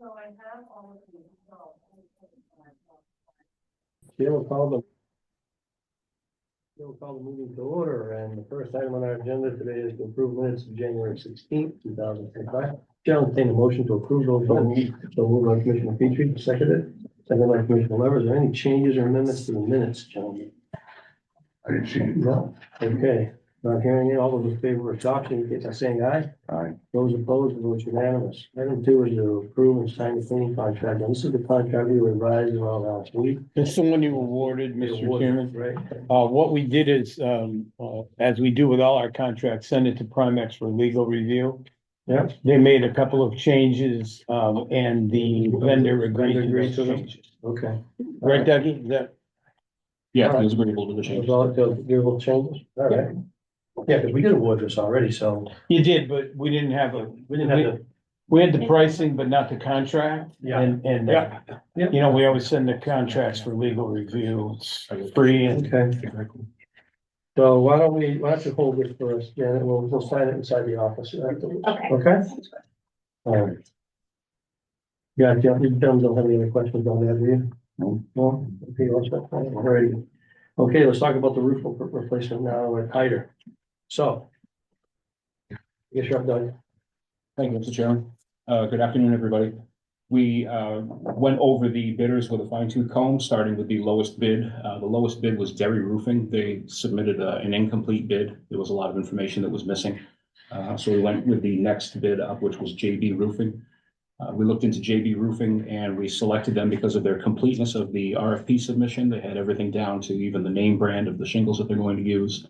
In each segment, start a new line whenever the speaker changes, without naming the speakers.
So I have all of these, Oh, so. let me take my phone.
She'll call the She'll call the meeting to order, and the first item on our agenda today is to approve minutes of January sixteenth, two thousand twenty-five. Chair will entertain a motion to approve those minutes. So moved by Commissioner Petrie, seconded. Seconded by Commissioner Levers. Are there any changes or amendments to the minutes, gentlemen?
I didn't see it.
No. Okay, not hearing it. All those in favor of adoption, indicate by saying aye.
Aye.
Those opposed, the vote's unanimous. Item two is to approve and sign the cleaning contract. And this is the contract we revised around last week.
That's the one you awarded, Mr. Chairman.
Right?
Uh, what we did is, um, uh, as we do with all our contracts, send it to Primex for legal review.
Yep.
They made a couple of changes, um, and the vendor agreed
Vendor
to
agreed
those
to them.
changes.
Okay.
Right, Dougie? Is that,
Yeah, it
was agreeable to the
Those all, those little changes? All right. Yeah, because we did award this already, so
you did, but we didn't have a,
we didn't have to.
we had the pricing, but not the contract.
Yeah.
And, and, uh, you know, we always send the contracts for legal review. It's free and
Okay. So why don't we, why don't you hold this for us, Janet? We'll, we'll sign it inside the office afterwards.
Okay.
Okay? All right. Yeah, Jeff, you don't don't have any other questions on that, do you?
No.
No? Okay, all set. All right. Okay, let's talk about the roof re- replacement now at Hyder. So. Yes, you're up, Doug.
Thank you, Mr. Chairman. Uh, good afternoon, everybody. We, uh, went over the bidders with a fine tooth comb, starting with the lowest bid. Uh, the lowest bid was Derry Roofing. They submitted uh, an incomplete bid. There was a lot of information that was missing. Uh, so we went with the next bid up, which was JB Roofing. Uh, we looked into JB Roofing and we selected them because of their completeness of the RFP submission. They had everything down to even the name brand of the shingles that they're going to use.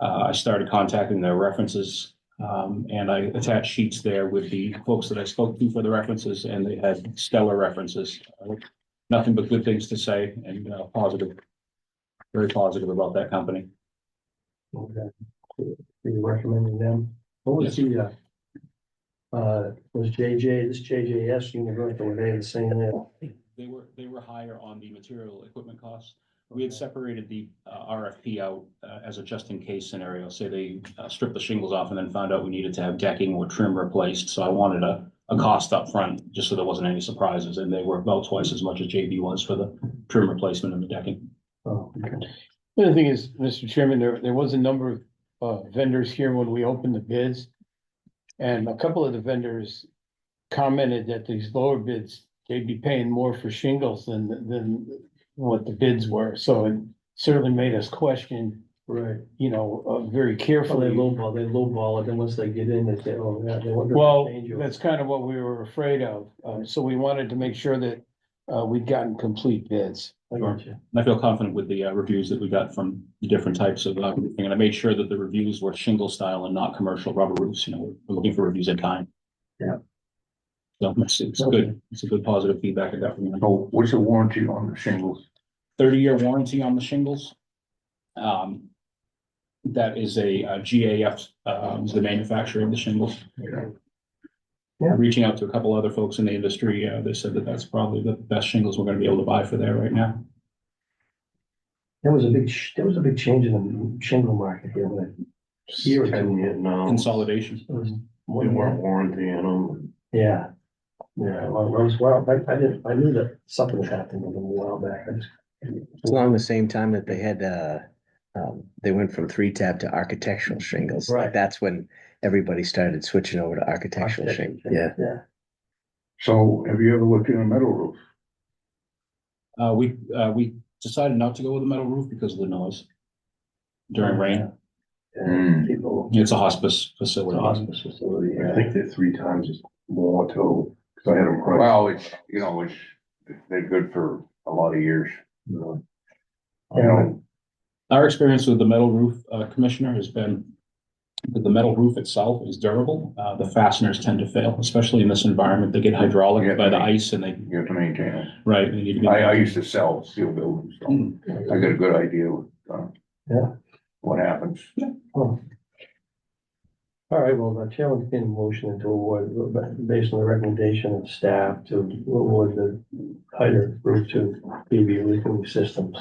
Uh, I started contacting their references. Um, and I attached sheets there with the folks that I spoke to for the references and they had stellar references. Uh, Nothing but good things to say and, uh, positive. Very positive about that company.
Okay. You recommending them? What was the, uh, uh, was JJ, this JJS Universal, were they the same there?
They were, they were higher on the material equipment costs. We had separated the, uh, RFP out, uh, as a just in case scenario. Say they uh, stripped the shingles off and then found out we needed to have decking or trim replaced. So I wanted a, a cost up front just so there wasn't any surprises. And they were about twice as much as JB was for the trim replacement and the decking.
Oh, okay.
The other thing is, Mr. Chairman, there, there was a number of uh, vendors here when we opened the bids. And a couple of the vendors commented that these lower bids, they'd be paying more for shingles than, than what the bids were. So it certainly made us question,
Right.
you know, uh, very
Well, they
carefully.
lowball, they lowball it, then once they get in, they say, oh, yeah, they wonder. if
Well,
they change it.
that's kind of what we were afraid of. Uh, So we wanted to make sure that uh, we'd gotten complete bids.
I got you.
And I feel confident with the uh, reviews that we got from the different types of, uh, roofing. and I made sure that the reviews were shingle style and not commercial rubber roofs, you know, we're looking for reviews at time.
Yeah.
So it's, it's good, it's a good positive feedback I got from them.
So what's the warranty on the shingles?
Thirty-year warranty on the shingles. Um, that is a uh, GAF, um, is the manufacturer of the shingles.
Yeah.
Yeah.
Reaching out to a couple other folks in the industry, uh, they said that that's probably the best shingles we're gonna be able to buy for there right now.
There was a big, sh- there was a big change in the shingle market here, but here it's in it
Oh.
now.
Consolidation.
It was more
They
than
weren't
that.
warranting them.
Yeah. Yeah, well, it was, well, I, I didn't, I knew that something was happening a little while back. I just-
Along the same time that they had, uh, um, they went from three tab to architectural shingles. Like,
Right.
That's when everybody started switching over to architectural shingles. Yeah.
Yeah.
So have you ever looked in a metal roof?
Uh, we, uh, we decided not to go with a metal roof because of the noise during rain.
Mm.
Yeah, people.
It's a hospice facility.
Hospice facility,
I
yeah.
think they're three times as more total, because I had them priced.
Well, it's, you know, it's, they're good for a lot of years. you know. You know,
Our experience with the metal roof, uh, commissioner has been that the metal roof itself is durable. Uh, the fasteners tend to fail, especially in this environment. They get hydraulic
Yeah.
by the ice and they,
you have to maintain it.
right, they need to be.
I, I used to sell steel buildings, so I got a good idea with, uh,
Yeah.
what happens.
All right, well, the chair would entertain a motion and to award, but based on the recommendation of staff to award the higher roof to BB Roofing Systems.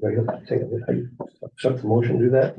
Take it, Accept the motion, do that?